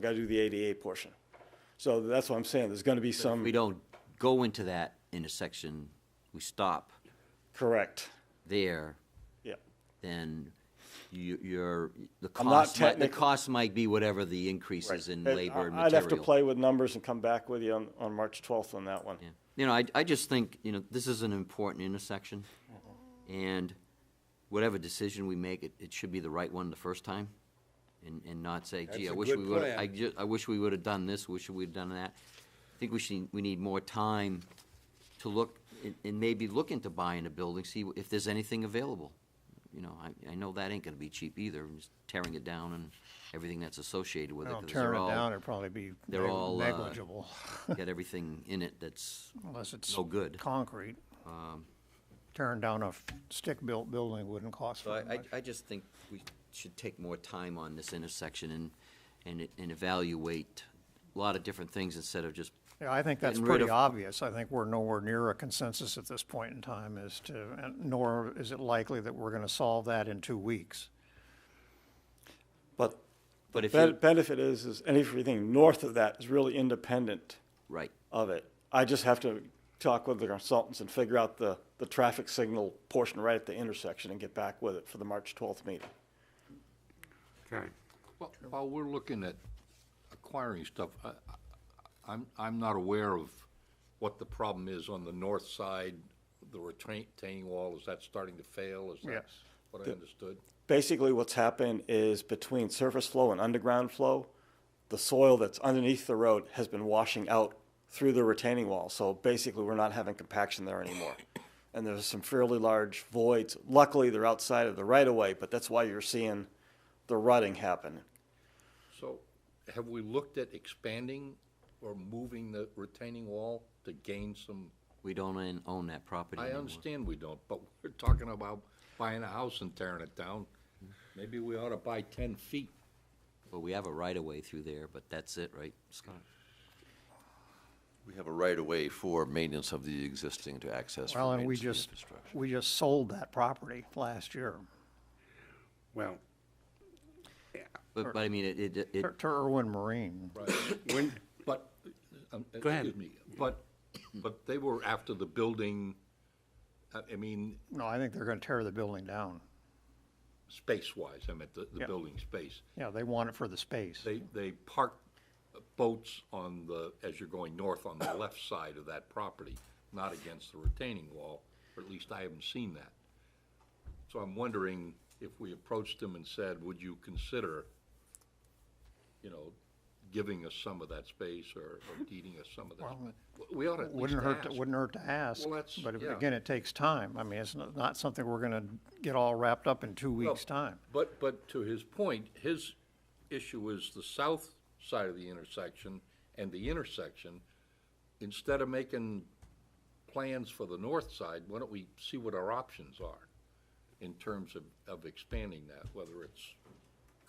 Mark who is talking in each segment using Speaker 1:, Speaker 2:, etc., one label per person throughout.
Speaker 1: Got to do the ADA portion. So that's what I'm saying, there's going to be
Speaker 2: If we
Speaker 1: some,
Speaker 2: don't go into that intersection, we stop
Speaker 1: correct,
Speaker 2: there,
Speaker 1: yeah.
Speaker 2: then you, you're, the
Speaker 1: I'm not
Speaker 2: cost, might- the
Speaker 1: technical-
Speaker 2: cost might be whatever the increase
Speaker 1: right.
Speaker 2: is in
Speaker 1: Uh,
Speaker 2: labor and material.
Speaker 1: I'd have to play with numbers and come back with you on, on March 12th on that one.
Speaker 2: Yeah. You know, I, I just think, you know, this is an important intersection, and whatever decision we make, it, it should be the right one the first time, and, and not say, gee,
Speaker 3: That's
Speaker 2: I
Speaker 3: a
Speaker 2: wish
Speaker 3: good
Speaker 2: we would,
Speaker 3: plan.
Speaker 2: I ju, I wish we would've done this, wish we'd done that. I think we should, we need more time to look, and, and maybe look into buying a building, see if there's anything available. You know, I, I know that ain't gonna be cheap either, and just tearing it down and everything that's associated with it.
Speaker 4: Well,
Speaker 2: 'cause they're
Speaker 4: tearing it
Speaker 2: all-
Speaker 4: down, it'd probably be
Speaker 2: they're all,
Speaker 4: neg-
Speaker 2: uh,
Speaker 4: negligible,
Speaker 2: Got everything in it that's,
Speaker 4: unless it's
Speaker 2: no good. Um,
Speaker 4: concrete. Tearing down a f- stick-built building wouldn't cost
Speaker 2: So
Speaker 4: very
Speaker 2: I,
Speaker 4: much.
Speaker 2: I, I just think we should take more time on this intersection and, and, it- and evaluate a lot of different things instead of just,
Speaker 4: Yeah, I think that's
Speaker 2: Getting rid
Speaker 4: pretty
Speaker 2: of-
Speaker 4: obvious. I think we're nowhere near a consensus at this point in time as to, and nor is it likely that we're gonna solve that in two weeks.
Speaker 1: But
Speaker 2: but if
Speaker 1: the
Speaker 2: you,
Speaker 1: benefit is, is anything north of that is really independent
Speaker 2: right,
Speaker 1: of it. I just have to talk with the consultants and figure out the, the traffic signal portion right at the intersection and get back with it for the March 12th meeting.
Speaker 5: Okay.
Speaker 6: Well, While we're looking at acquiring stuff, I- I- I'm, I'm not aware of what the problem is on the north side, the retain- retaining wall, is that starting to fail? Is that
Speaker 4: Yes.
Speaker 6: what I understood?
Speaker 1: Basically, what's happened is between surface flow and underground flow, the soil that's underneath the road has been washing out through the retaining wall. So basically, we're not having compaction there anymore. And there's some fairly large voids. Luckily, they're outside of the right of way, but that's why you're seeing the rutting happen.
Speaker 6: So have we looked at expanding or moving the retaining wall to gain some?
Speaker 2: we don't own- own that property
Speaker 6: I
Speaker 2: anymore.
Speaker 6: understand we don't, but we're talking about buying a house and tearing it down. Maybe we ought to buy ten feet.
Speaker 2: Well, we have a right-of-way through there, but that's it, right, Scott?
Speaker 3: We have a right-of-way for maintenance of the existing to access for
Speaker 4: Well, and we
Speaker 3: maintenance of the
Speaker 4: just,
Speaker 3: infrastructure.
Speaker 4: we just sold that property last year
Speaker 5: Well,
Speaker 2: But, but I mean, it, it, it,
Speaker 4: to to Irwin Marine.
Speaker 5: when,
Speaker 6: But, um,
Speaker 5: Go ahead.
Speaker 6: excuse me, but, but they were after the building, I I mean,
Speaker 4: No, I think they're gonna tear the building down.
Speaker 6: space-wise, I meant the, the
Speaker 4: Yeah.
Speaker 6: building space.
Speaker 4: Yeah, they want it for the space.
Speaker 6: They, they parked boats on the, as you're going north, on the left side of that property, not against the retaining wall, or at least I haven't seen that. So I'm wondering if we approached them and said, would you consider, you know, giving us some of that space or or deeding us some of that? spa- We ought to at least
Speaker 4: Wouldn't hurt, to-
Speaker 6: ask.
Speaker 4: wouldn't hurt to ask,
Speaker 6: Well, that's-
Speaker 4: but if-
Speaker 6: yeah.
Speaker 4: again, it takes time. I mean, it's not not something we're gonna get all wrapped up in two
Speaker 6: Well,
Speaker 4: weeks' time.
Speaker 6: But, but to his point, his issue is the south side of the intersection and the intersection. Instead of making plans for the north side, why don't we see what our options are in terms of, of expanding that, whether it's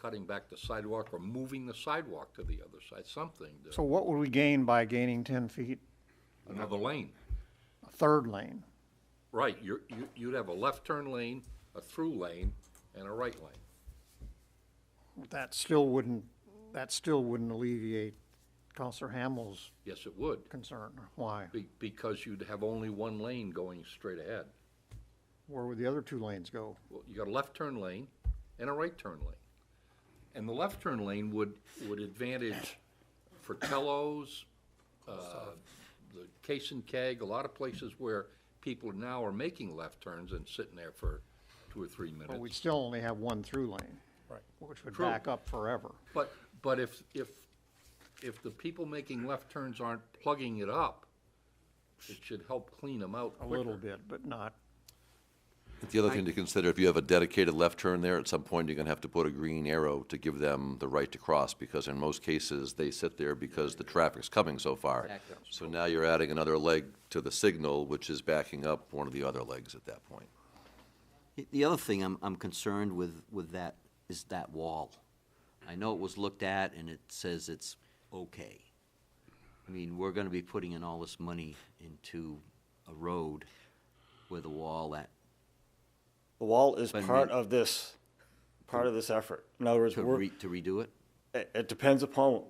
Speaker 6: cutting back the sidewalk or moving the sidewalk to the other side, something, to-
Speaker 4: So what would we gain by gaining ten feet,
Speaker 6: another lane.
Speaker 4: a third lane?
Speaker 6: Right, you're, you, you'd have a left turn lane, a through lane, and a right lane.
Speaker 4: That still wouldn't, that still wouldn't alleviate Counselor Hamel's
Speaker 6: Yes, it would.
Speaker 4: concern. Why?
Speaker 6: Be- Because you'd have only one lane going straight ahead.
Speaker 4: Where would the other two lanes go?
Speaker 6: Well, You got a left turn lane and a right turn lane. And the left turn lane would, would advantage Fratello's, uh, the Case and Keg, a lot of places where people now are making left turns and sitting there for two or three
Speaker 4: But we'd
Speaker 6: minutes.
Speaker 4: still only have one through lane. Right. Which would
Speaker 6: True.
Speaker 4: back up forever.
Speaker 6: But, but if, if, if the people making left turns aren't plugging it up, it should help clean them out
Speaker 4: A
Speaker 6: quicker.
Speaker 4: little bit, but not,
Speaker 3: The other thing to consider, if you have a dedicated left turn there, at some point, you're gonna have to put a green arrow to give them the right to cross, because in most cases, they sit there because the traffic's coming so far. So now you're adding another leg to the signal, which is backing up one of the other legs at that point.
Speaker 2: The- The other thing I'm, I'm concerned with, with that, is that wall. I know it was looked at and it says it's okay. I mean, we're gonna be putting in all this money into a road with a wall that
Speaker 1: The wall is
Speaker 2: But
Speaker 1: part
Speaker 2: then-
Speaker 1: of this, part of this effort. In other words,
Speaker 2: to
Speaker 1: we're,
Speaker 2: re, to redo it?
Speaker 1: it it depends upon